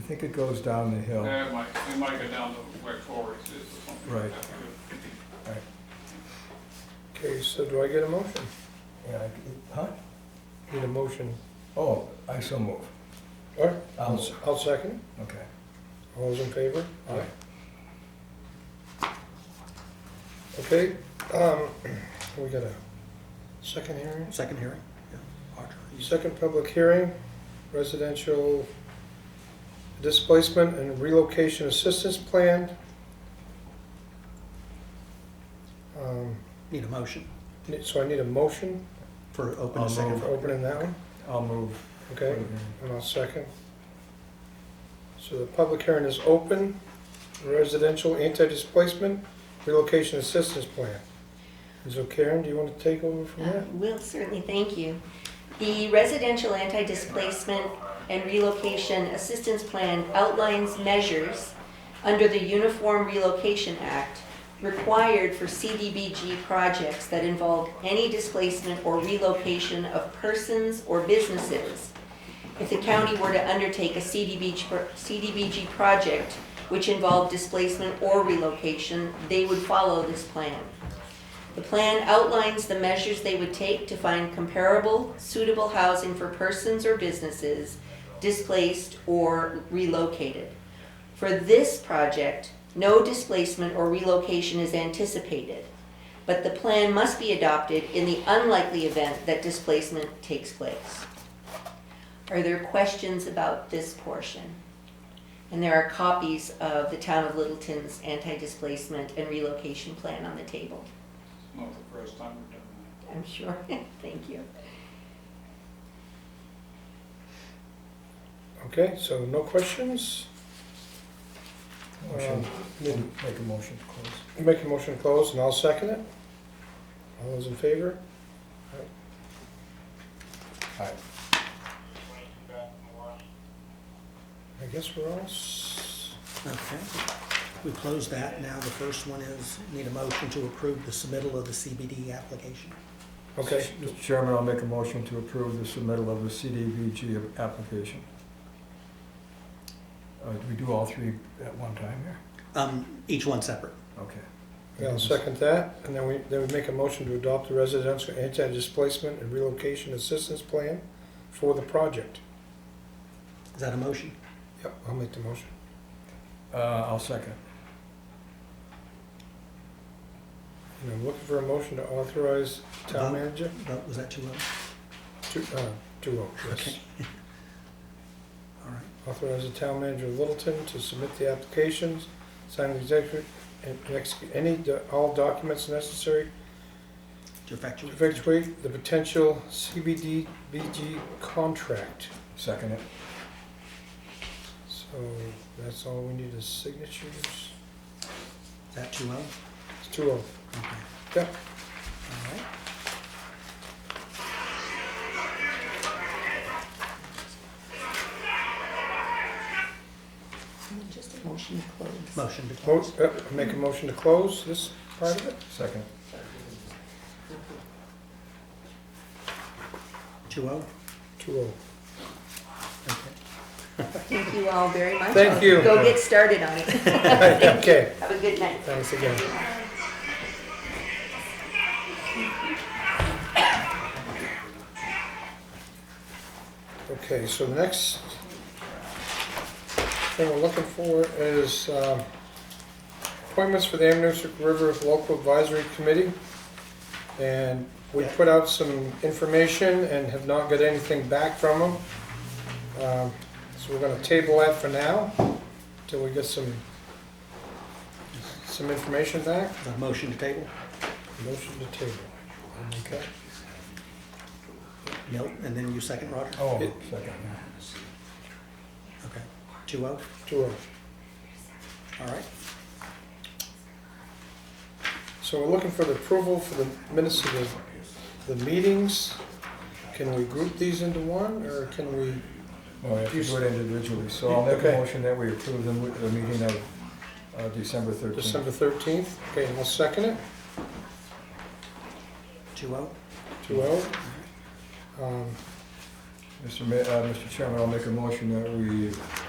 think it goes down the hill. Yeah, it might, it might go down to where Corey's is or something. Right. That's good. Okay, so do I get a motion? Yeah, I- Huh? Need a motion? Oh, I so move. All right, I'll move. I'll second. Okay. All those in favor? Okay, um, we got a second hearing, Second hearing? Yeah. Roger. second public hearing, residential displacement and relocation assistance plan. Um, Need a motion ne- So I need a motion for open I'll a second move. for vote. opening that one, I'll move. okay? And I'll second. So the public hearing is open, residential anti-displacement relocation assistance plan. So Karen, do you want to take over from Uh, there? Will, certainly, thank you. The Residential Anti-Displacement and Relocation Assistance Plan outlines measures under the Uniform Relocation Act required for CDBG projects that involve any displacement or relocation of persons or businesses. If the county were to undertake a CDBG, pro- CDBG project which involved displacement or relocation, they would follow this plan. The plan outlines the measures they would take to find comparable, suitable housing for persons or businesses displaced or relocated. For this project, no displacement or relocation is anticipated, but the plan must be adopted in the unlikely event that displacement takes place. Are there questions about this portion? And there are copies of the Town of Littleton's anti-displacement and relocation plan on the table. It's not the first time we've done that. I'm sure. Thank you. Okay, so no questions? Motion. Um, need- Make a motion to close. Make a motion to close and I'll second it. All those in favor? All right. I guess we're all, s- Okay. We closed that. Now the first one is, need a motion to approve the submittal of the CBD application. okay, Mr. Chairman, I'll make a motion to approve the submittal of the CDVG application. Uh, do we do all three at one time here? Um, each one separate. Okay. yeah, I'll second that. And then we, then we make a motion to adopt the residential anti-displacement and relocation assistance plan for the project. Is that a motion? Yep, I'll make the motion. Uh, I'll second. And I'm looking for a motion to authorize town Vote. manager Vote, was that two oh? to, uh, to vote, yes. Okay. All right. Authorize the town manager of Littleton to submit the applications, sign the executive, and execute any, do- all documents necessary To to effectuate. effectuate the potential CBDBG contract. Second it. So that's all we need is signatures. Is that two oh? It's two of Okay. Yep. All right. Just a motion to close. Motion to Mo- close. uh, Make a motion to close this part of it? Second. Two oh? Two oh. Okay. Thank you all very much. Thank you. Go get started on it. Okay, Have a good night. thanks again. Okay, so the next thing we're looking for is um, appointments for the Amnesiac River Local Advisory Committee. And we Yeah. put out some information and have not got anything back from them. Um, So we're gonna table that for now, till we get some, some information back. Is that a motion to table? Motion to table. Okay. Nope. And then you second, Roger? Oh, It- second. Okay. Two oh? Two oh. All right. So we're looking for the approval for the minutes of the, the meetings. Can we group these into one, or can we, No, we have to do it individually, so I'll make a Okay. motion that we approve them with the meeting of uh, December thirteenth. December thirteenth? Okay, and I'll second it, Two oh? two oh. Um, Mr. Ma, uh, Mr. Chairman, I'll make a motion that we